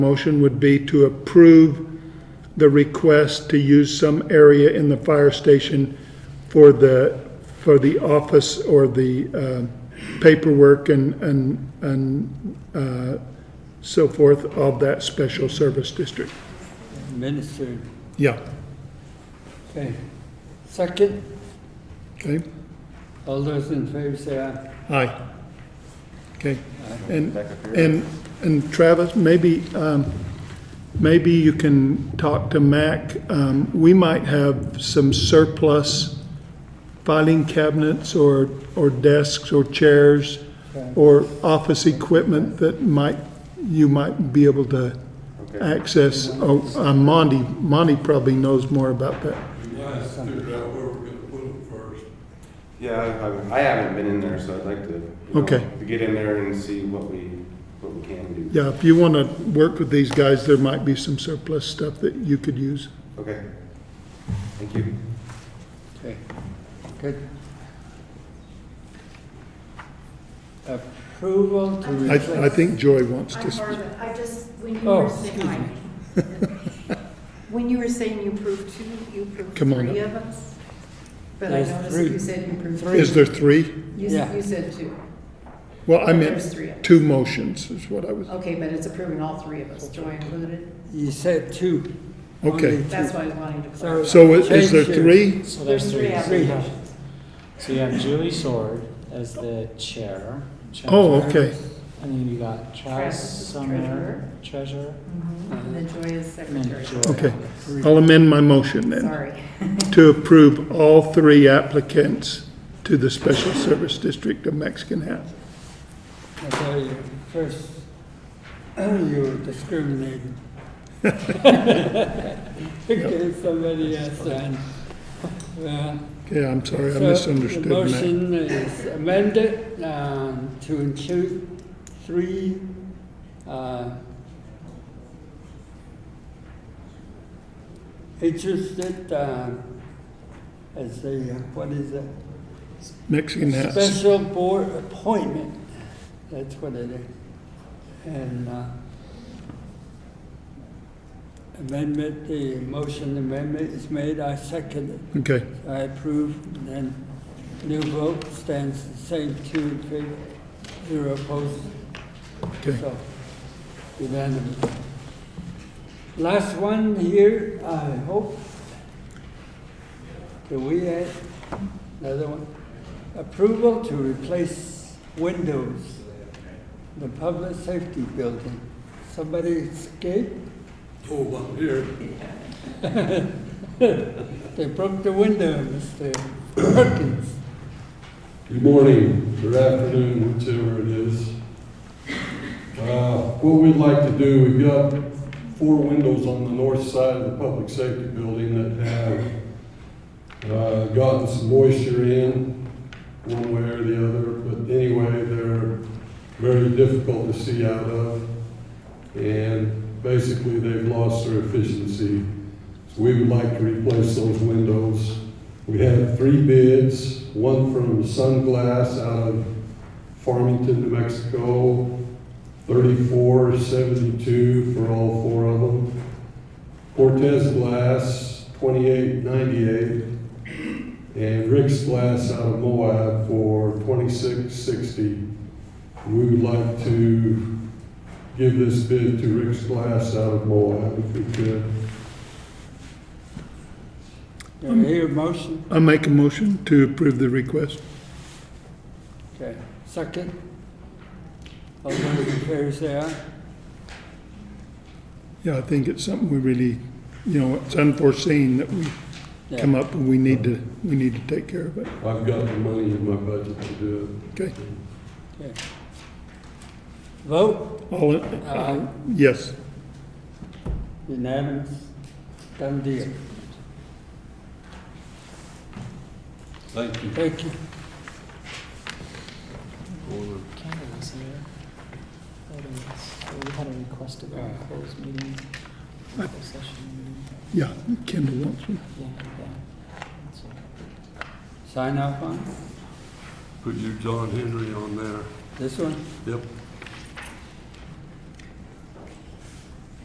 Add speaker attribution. Speaker 1: Motion would be to approve the request to use some area in the fire station for the, for the office or the uh, paperwork and, and, and uh, so forth of that special service district.
Speaker 2: Administered,
Speaker 1: Yeah,
Speaker 2: okay. Second,
Speaker 1: okay,
Speaker 2: all those in favor say aye.
Speaker 1: aye. Okay, and,
Speaker 3: Back up here.
Speaker 1: and, and Travis, maybe, um, maybe you can talk to Mac. Um, we might have some surplus filing cabinets or, or desks or chairs or office equipment that might, you might be able to
Speaker 3: Okay.
Speaker 1: access. Oh, uh, Monty, Monty probably knows more about that.
Speaker 4: Yeah, I figured out where we're gonna put it first.
Speaker 3: Yeah, I- I, I haven't been in there, so I'd like to. you know,
Speaker 1: Okay.
Speaker 3: To get in there and see what we, what we can do.
Speaker 1: Yeah, if you want to work with these guys, there might be some surplus stuff that you could use.
Speaker 3: Okay. Thank you.
Speaker 2: Okay, good. Approval to replace.
Speaker 1: I, I think Joy wants to
Speaker 5: I'm
Speaker 1: speak.
Speaker 5: part of it. I just, when you
Speaker 2: Oh,
Speaker 5: were saying,
Speaker 2: excuse me.
Speaker 5: I- when you were saying you approved two, you approved
Speaker 1: Come on
Speaker 5: three
Speaker 1: up.
Speaker 5: of us? But I
Speaker 2: There's
Speaker 5: noticed
Speaker 2: three.
Speaker 5: you said you approved
Speaker 2: Three.
Speaker 5: three.
Speaker 1: Is there three?
Speaker 5: You,
Speaker 2: Yeah.
Speaker 5: s- you said two.
Speaker 1: Well, I
Speaker 5: There's
Speaker 1: meant
Speaker 5: three.
Speaker 1: two motions is what I was,
Speaker 5: Okay, but it's approving all three of us, Joy included.
Speaker 2: You said two.
Speaker 1: Okay.
Speaker 2: Only two.
Speaker 5: That's why I was wanting to
Speaker 2: So-
Speaker 5: clarify.
Speaker 1: so is- is there
Speaker 2: Change your-
Speaker 1: three?
Speaker 6: So there's three.
Speaker 2: Three.
Speaker 5: applications.
Speaker 6: So you have Julie Sword as the chair.
Speaker 1: Oh,
Speaker 6: treasurer,
Speaker 1: okay,
Speaker 6: And then you got
Speaker 5: Travis
Speaker 6: Travis
Speaker 5: is
Speaker 6: Summer, treasurer,
Speaker 5: Mhm. And then Joy is
Speaker 6: and then
Speaker 5: secretary.
Speaker 6: Joy.
Speaker 1: okay. I'll amend my motion then,
Speaker 5: Sorry.
Speaker 1: to approve all three applicants to the Special Service District of Mexican Hat.
Speaker 2: Okay, you- first, you were discriminating. Okay, somebody else then. Yeah.
Speaker 1: Okay, I'm sorry, I
Speaker 2: So,
Speaker 1: misunderstood
Speaker 2: The
Speaker 1: that.
Speaker 2: motion is amended um, to include three uh, interested, um, as a, what is it?
Speaker 1: Mexican Hat,
Speaker 2: Special board appointment, that's what it is. And uh, amendment, the motion amendment is made, I second it.
Speaker 1: okay.
Speaker 2: I approve, and new vote stands the same, two in favor, zero opposed.
Speaker 1: Okay.
Speaker 2: So, Unanimous. Last one here, I hope. Do we add another one? Approval to replace windows in the public safety building. Somebody escaped,
Speaker 4: Oh, up here.
Speaker 2: they broke the window, Mr. Perkins.
Speaker 4: Good morning, or afternoon, whichever it is. Uh, What we'd like to do, we've got four windows on the north side of the public safety building that have uh, gotten some moisture in, one way or the other, but anyway, they're very difficult to see out of. And basically, they've lost their efficiency. So we would like to replace those windows. We had three bids, one from Sunglass out of Farmington, New Mexico, thirty-four seventy-two for all four of them. Cortez Glass, twenty-eight ninety-eight, and Rick's Glass out of Moab for twenty-six sixty. We would like to give this bid to Rick's Glass out of Moab if we could.
Speaker 2: Do I hear a motion?
Speaker 1: I make a motion to approve the request.
Speaker 2: Okay, second. All those in favor say aye.
Speaker 1: Yeah, I think it's something we really, you know, it's unforeseen that we
Speaker 2: Yeah.
Speaker 1: come up and we need to, we need to take care of it.
Speaker 4: I've got the money in my budget to do
Speaker 1: Okay,
Speaker 2: Okay. Vote,
Speaker 1: all, in-
Speaker 2: aye,
Speaker 1: yes,
Speaker 2: unanimous, done deal.
Speaker 4: it. Thank you.
Speaker 2: Thank you.
Speaker 6: Canada's here. Items. So We had a request to go in closed meeting, closed session,
Speaker 1: yeah, Kendall wants one.
Speaker 6: yeah, yeah. That's it.
Speaker 2: Sign off on
Speaker 4: Put your John Henry on there.
Speaker 2: this one?
Speaker 4: Yep.